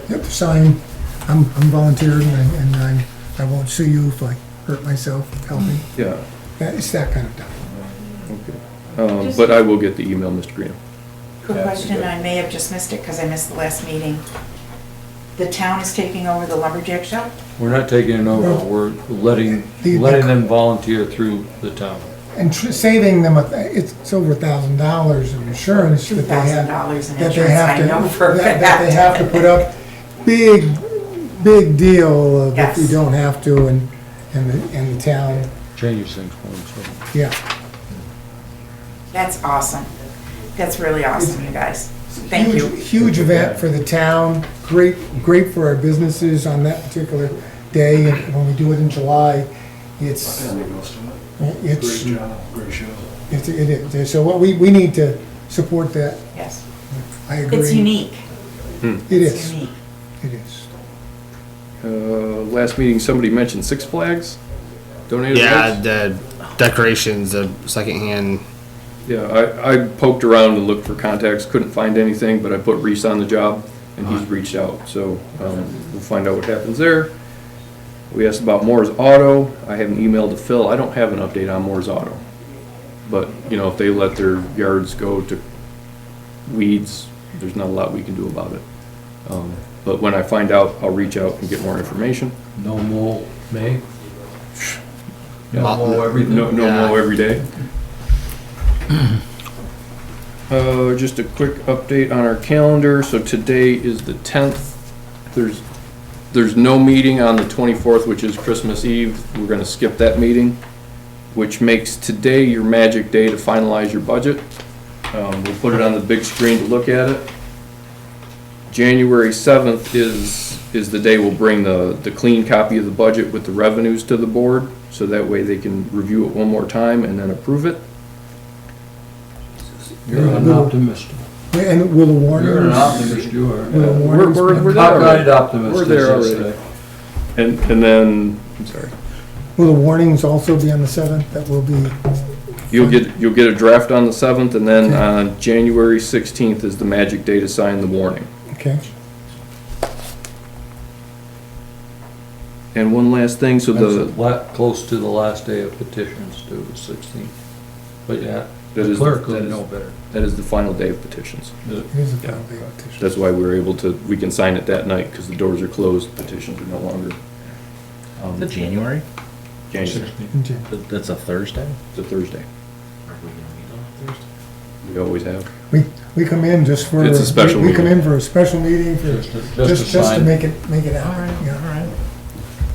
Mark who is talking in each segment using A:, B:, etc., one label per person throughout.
A: have to sign. I'm, I'm volunteering and, and I, I won't sue you if I hurt myself, help me.
B: Yeah,
A: That- It's that kind of stuff.
B: okay. Um, But I will get the email, Mr. Graham.
C: Quick
D: Yeah, that's
C: question,
D: good.
C: I may have just missed it because I missed the last meeting. The town is taking over the lumberjack shop?
D: We're not taking it over, we're letting,
A: The-
D: letting them volunteer through the town.
A: And tr- saving them, a th- it's it's over a thousand dollars of insurance that they have.
C: $2,000 in
A: that they
C: insurance,
A: have
C: I
A: to-
C: know for a
A: that- That they have to put up, big, big deal of if you
C: Yes.
A: don't have to and, and the, and the town,
D: Changes things for them, so.
A: yeah.
C: That's awesome. That's really awesome, you guys. Thank
A: Huge-
C: you.
A: Huge event for the town, great, great for our businesses on that particular day, and when we do it in July, it's, it's,
E: Great job, great show.
A: it's- it is, so what we, we need to support that,
C: Yes.
A: I agree.
C: It's unique.
A: It
C: It's
A: is,
C: unique.
A: it is.
B: Uh, Last meeting, somebody mentioned Six Flags donated
F: Yeah,
B: lights.
F: the decorations, the secondhand.
B: Yeah, I, I poked around and looked for contacts, couldn't find anything, but I put Reese on the job and he's reached out, so um, we'll find out what happens there. We asked about Moore's Auto. I have an email to Phil. I don't have an update on Moore's Auto. But, you know, if they let their yards go to weeds, there's not a lot we can do about it. Um, But when I find out, I'll reach out and get more information.
D: No more May?
F: Yeah.
D: No more everything?
B: No, no
F: Yeah.
B: mow every day. Uh, just a quick update on our calendar, so today is the tenth. There's, there's no meeting on the twenty-fourth, which is Christmas Eve, we're gonna skip that meeting, which makes today your magic day to finalize your budget. Um, we'll put it on the big screen to look at it. January seventh is, is the day we'll bring the, the clean copy of the budget with the revenues to the board, so that way they can review it one more time and then approve it.
D: You're an optimist.
A: And will the
D: You're an
A: warners,
D: optimist, you are.
A: will the
D: A
A: warners?
B: we're- we're-
D: Cockeyed optimist,
B: We're
D: as
B: there
D: they
B: already.
D: say.
B: And, and then, I'm sorry,
A: Will the warnings also be on the seventh, that will be,
B: you'll get, you'll get a draft on the seventh, and then on January sixteenth is the magic day to sign the warning.
A: okay?
B: And one last thing, so the,
D: That's la- close to the last day of petitions due, the sixteenth. But yeah,
B: That
D: the
B: is-
D: clerk
B: that
D: would
B: is-
D: know better.
B: that is the final day of petitions.
A: It is a final day of petition.
B: That's why we're able to, we can sign it that night, because the doors are closed, petitions are no longer. um,
G: The January?
B: January,
A: In January.
G: Th- That's a Thursday?
B: it's a Thursday. We always have.
A: We, we come in just for.
B: It's a special
A: we- We come
B: meeting.
A: in for a special meeting for,
D: Just to-
A: just, just to
D: sign.
A: make it, make it out, yeah, all right.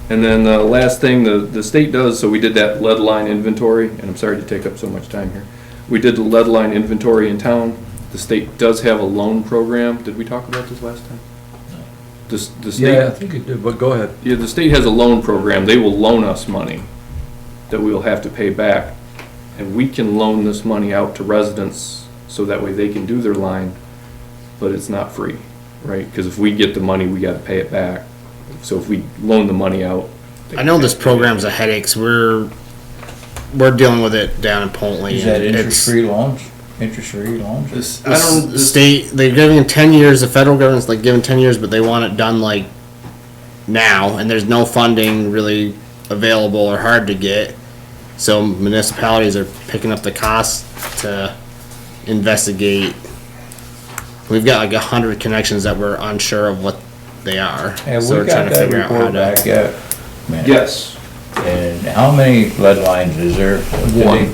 B: And then the last thing the, the state does, so we did that lead line inventory, and I'm sorry to take up so much time here. We did the lead line inventory in town. The state does have a loan program. Did we talk about this last time? The, s- the
D: Yeah, I
B: state,
D: think it did, but go ahead.
B: yeah, the state has a loan program. They will loan us money that we will have to pay back. And we can loan this money out to residents, so that way they can do their line, but it's not free, right? Because if we get the money, we gotta pay it back. So if we loan the money out. they
F: I know this
B: can't pay it.
F: program's a headache. 'cause we're we're dealing with it down in Pontley.
G: Is
F: and
G: that
F: it's-
G: interest-free loans? Interest-free loans?
B: This,
F: the state they're giving ten years. The federal government's like giving ten years, but they want it done like now, and there's no funding really available or hard to get. So municipalities are picking up the cost to investigate. We've got like a hundred connections that we're unsure of what they are.
G: Have
F: so
G: we
F: we're trying
G: got
F: to
G: that
F: figure out how
G: report
F: to.
G: back yet? Man.
B: Yes,
G: And how many lead lines is there? Did
B: One.
G: they-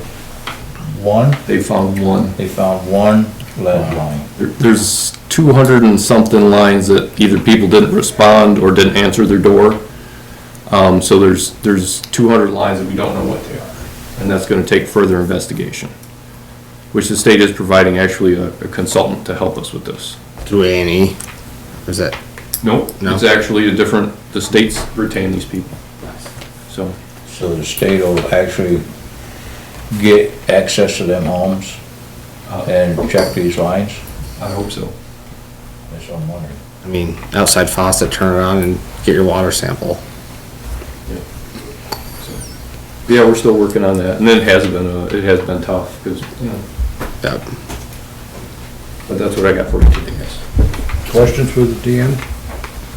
G: One?
B: they found one.
G: They found one lead line.
B: There- There's two hundred and something lines that either people didn't respond or didn't answer their door. Um, so there's, there's two hundred lines that we don't know what they are, and that's gonna take further investigation. Which the state is providing actually a a consultant to help us with this.
F: Through A and E. Is that
B: Nope,
F: No.
B: it's actually a different, the states retain these people. So,
G: So the state will actually get access to them homes
A: Oh.
G: and check these lines?
B: I hope so.
G: That's what I'm wondering.
F: I mean, outside faucet, turn it on and get your water sample.
B: Yeah, we're still working on that, and it has been, uh, it has been tough, because, you know,
F: That-
B: but that's what I got for you today, guys.
D: Questions for the DM?